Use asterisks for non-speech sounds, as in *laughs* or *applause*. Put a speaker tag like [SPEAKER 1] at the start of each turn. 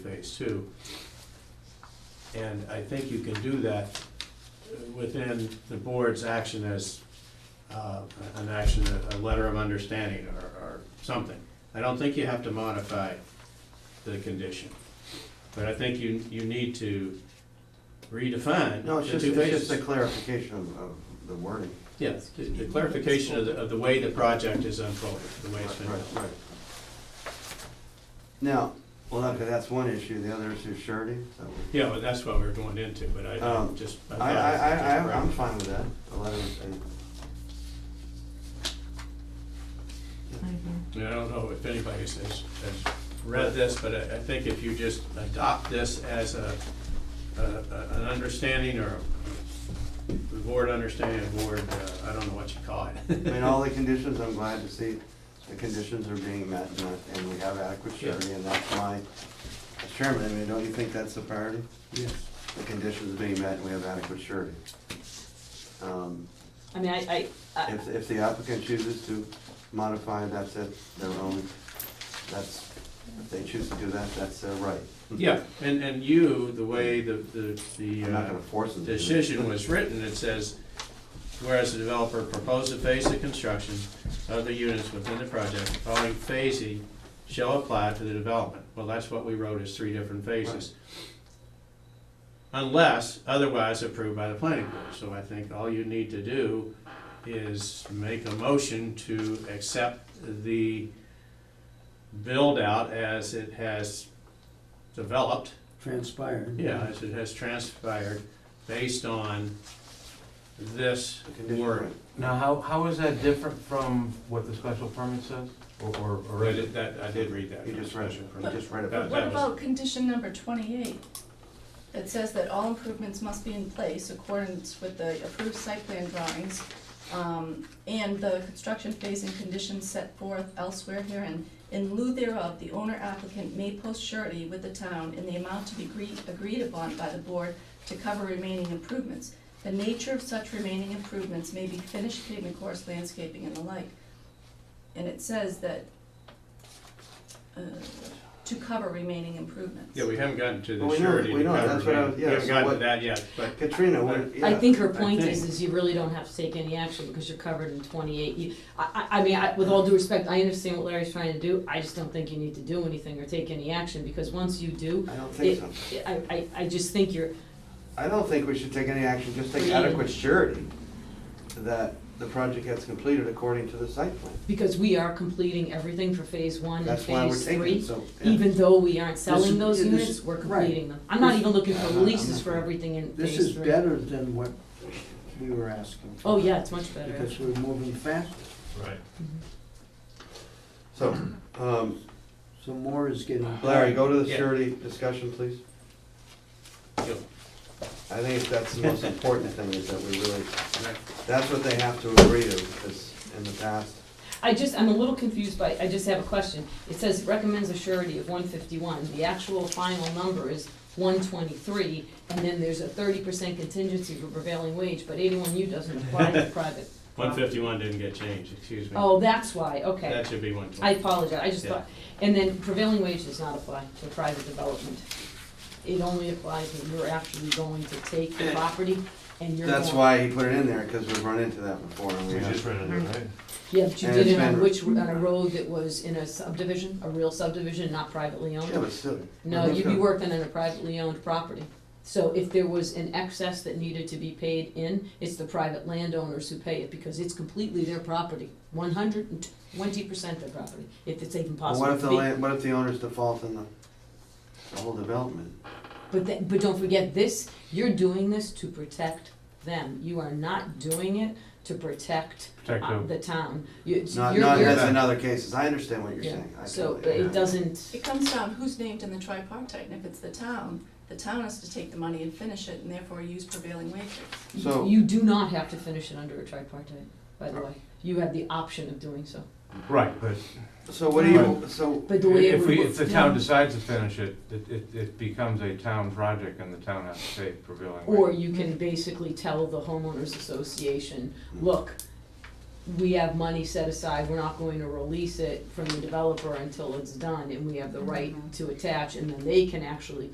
[SPEAKER 1] phase two. And I think you can do that within the board's action as, uh, an action, a, a letter of understanding or, or something. I don't think you have to modify the condition, but I think you, you need to redefine
[SPEAKER 2] No, it's
[SPEAKER 1] the
[SPEAKER 2] just,
[SPEAKER 1] two
[SPEAKER 2] it's just
[SPEAKER 1] phases.
[SPEAKER 2] a clarification of, of the wording.
[SPEAKER 1] Yeah, the- the clarification of the, of the way the project is unfolded, the way it's
[SPEAKER 2] Right,
[SPEAKER 1] been
[SPEAKER 2] right,
[SPEAKER 1] built.
[SPEAKER 2] right. Now, well, okay, that's one issue, the other issue is surety, so.
[SPEAKER 1] Yeah, well, that's what we're going into, but I- I
[SPEAKER 2] Um,
[SPEAKER 1] just.
[SPEAKER 2] I,
[SPEAKER 1] thought
[SPEAKER 2] I,
[SPEAKER 1] it was just
[SPEAKER 2] I, I-
[SPEAKER 1] grammar.
[SPEAKER 2] I'm fine with that, the letter and.
[SPEAKER 1] I mean, I don't know if anybody has, has has read this, but I, I think if you just adopt this as a, a- a- an understanding or a the board understanding, a board, uh, I don't know what you call
[SPEAKER 2] I mean,
[SPEAKER 1] it.
[SPEAKER 2] all the conditions, I'm glad to see the conditions are being met and that- and we have adequate
[SPEAKER 1] Yeah.
[SPEAKER 2] surety, and that's my, as chairman, I mean, don't you think that's the priority?
[SPEAKER 1] *laughs* Yes.
[SPEAKER 2] The conditions are being met and we have adequate surety. Um,
[SPEAKER 3] I mean, I, I, I,
[SPEAKER 2] If, if the applicant chooses to modify, that's it, their own, that's, if they choose to do that, that's their right.
[SPEAKER 1] Yeah, and, and you, the way the, the, the.
[SPEAKER 2] I'm not
[SPEAKER 1] uh,
[SPEAKER 2] gonna force them to do it.
[SPEAKER 1] decision was written, it says, whereas the developer proposed a phase of construction of the units within the project, the following phasing shall apply to the development. Well, that's what we wrote as three different phases. Unless otherwise approved by the planning board. So I think all you need to do is make a motion to accept the build-out as it has developed
[SPEAKER 4] transpired.
[SPEAKER 1] yeah, as it has transpired based on this
[SPEAKER 2] The condition,
[SPEAKER 1] work.
[SPEAKER 2] right.
[SPEAKER 5] Now, how, how is that different from what the special permit says, or, or- or
[SPEAKER 1] Right,
[SPEAKER 5] is it?
[SPEAKER 1] it- that, I did read that.
[SPEAKER 2] He just read, it. he just read
[SPEAKER 1] That-
[SPEAKER 2] about
[SPEAKER 6] What
[SPEAKER 2] it.
[SPEAKER 1] was-
[SPEAKER 6] about condition number twenty-eight? It says that all improvements must be in place accordance with the approved site plan drawings um, and the construction phase and conditions set forth elsewhere herein. In lieu thereof, the owner applicant may post surety with the town in the amount to be agreed, agreed upon by the board to cover remaining improvements. The nature of such remaining improvements may be finished pavement course, landscaping, and the like. And it says that, uh, to cover remaining improvements.
[SPEAKER 1] Yeah, we haven't gotten to
[SPEAKER 2] Well,
[SPEAKER 1] the
[SPEAKER 2] we know-
[SPEAKER 1] surety.
[SPEAKER 2] we
[SPEAKER 1] to
[SPEAKER 2] know,
[SPEAKER 1] cover
[SPEAKER 2] that's what I was-
[SPEAKER 1] it.
[SPEAKER 2] yeah,
[SPEAKER 1] We haven't
[SPEAKER 2] so
[SPEAKER 1] gotten to
[SPEAKER 2] what-
[SPEAKER 1] that yet, but
[SPEAKER 2] Katrina, what, yeah.
[SPEAKER 3] I think her point
[SPEAKER 1] think-
[SPEAKER 3] is, is you really don't have to take any action because you're covered in twenty-eight. You- I, I, I mean, I, with all due respect, I understand what Larry's trying to do, I just don't think you need to do anything or take any action, because once you do,
[SPEAKER 2] I don't think so.
[SPEAKER 3] it, I, I, I just think you're,
[SPEAKER 2] I don't think we should take any action, just take adequate surety that the project gets completed according to the site plan.
[SPEAKER 3] because we are completing everything for phase one and
[SPEAKER 2] That's why we're
[SPEAKER 3] phase
[SPEAKER 2] taking
[SPEAKER 3] three.
[SPEAKER 2] it, so. yeah.
[SPEAKER 3] Even though we aren't
[SPEAKER 4] This
[SPEAKER 3] selling
[SPEAKER 4] is-
[SPEAKER 3] those
[SPEAKER 4] yeah, this
[SPEAKER 3] units,
[SPEAKER 4] is-
[SPEAKER 3] we're
[SPEAKER 4] right.
[SPEAKER 3] completing them. I'm not
[SPEAKER 4] This- Uh-huh.
[SPEAKER 3] even looking
[SPEAKER 2] Yeah,
[SPEAKER 3] for
[SPEAKER 2] I'm not-
[SPEAKER 3] releases
[SPEAKER 2] I'm
[SPEAKER 3] for
[SPEAKER 2] not-
[SPEAKER 3] everything in phase three.
[SPEAKER 4] This is better than what we were asking. for,
[SPEAKER 3] Oh, yeah, it's much better.
[SPEAKER 4] Because we're moving fast,
[SPEAKER 1] Right.
[SPEAKER 2] So, um,
[SPEAKER 4] so more is getting.
[SPEAKER 2] Larry, go to the
[SPEAKER 1] Yeah.
[SPEAKER 2] surety discussion, please.
[SPEAKER 1] Yep.
[SPEAKER 2] I think that's the
[SPEAKER 1] *laughs*
[SPEAKER 2] most important thing, is that we really,
[SPEAKER 1] Right.
[SPEAKER 2] that's what they have to agree to, because in the past,
[SPEAKER 3] I just, I'm a little confused by, I just have a question. It says recommends a surety of one fifty-one, the actual final number is one twenty-three, and then there's a thirty percent contingency for prevailing wage, but eighty-one U doesn't
[SPEAKER 1] *laughs*
[SPEAKER 3] apply to private.
[SPEAKER 1] One fifty-one didn't get changed, excuse me.
[SPEAKER 3] Oh, that's why, okay.
[SPEAKER 1] That should be one
[SPEAKER 3] I
[SPEAKER 1] twenty.
[SPEAKER 3] apologize, I just
[SPEAKER 1] Yeah.
[SPEAKER 3] thought, and then prevailing wage does not apply to private development. It only applies when you're actually going to take the property and you're going.
[SPEAKER 2] that's why he put it in there, because we've run into that before, and we have,
[SPEAKER 5] ran into it, right?
[SPEAKER 3] Yeah, but you
[SPEAKER 2] And
[SPEAKER 3] did
[SPEAKER 2] it's
[SPEAKER 3] it on
[SPEAKER 2] been-
[SPEAKER 3] which, on a road that was in a subdivision, a real subdivision, not privately owned.
[SPEAKER 2] yeah, but still.
[SPEAKER 3] No, you'd be working on a privately owned property. So if there was an excess that needed to be paid in, it's the private landowners who pay it because it's completely their property. One hundred and twenty percent their property, if it's even
[SPEAKER 2] Well,
[SPEAKER 3] possible
[SPEAKER 2] what if
[SPEAKER 3] to
[SPEAKER 2] the
[SPEAKER 3] be.
[SPEAKER 2] land, what if the owners default in the, the whole development?
[SPEAKER 3] But then, but don't forget this, you're doing this to protect them. You are not doing it to protect
[SPEAKER 5] Protect
[SPEAKER 3] uh,
[SPEAKER 5] them.
[SPEAKER 3] the town. You,
[SPEAKER 2] Not,
[SPEAKER 3] you're-
[SPEAKER 2] not
[SPEAKER 3] you're-
[SPEAKER 2] as in other cases, I understand what you're
[SPEAKER 3] Yeah.
[SPEAKER 2] saying. I
[SPEAKER 3] So
[SPEAKER 2] totally
[SPEAKER 3] it
[SPEAKER 2] agree.
[SPEAKER 3] doesn't,
[SPEAKER 6] It comes down who's named in the tripartite, and if it's the town, the town has to take the money and finish it, and therefore use prevailing wages.
[SPEAKER 2] So- Uh,
[SPEAKER 3] you do not have to finish it under a tripartite, by the way. You have the option of doing so.
[SPEAKER 5] Right, but
[SPEAKER 2] So what do you, so,
[SPEAKER 3] But the way it
[SPEAKER 5] if
[SPEAKER 3] would
[SPEAKER 5] we,
[SPEAKER 3] work-
[SPEAKER 5] if the town decides to finish it, it, it, it becomes a town project and the town has to pay prevailing wage.
[SPEAKER 3] Or you can basically tell the homeowners association, look, we have money set aside, we're not going to release it from the developer until it's done, and we have the right to attach, and then they can actually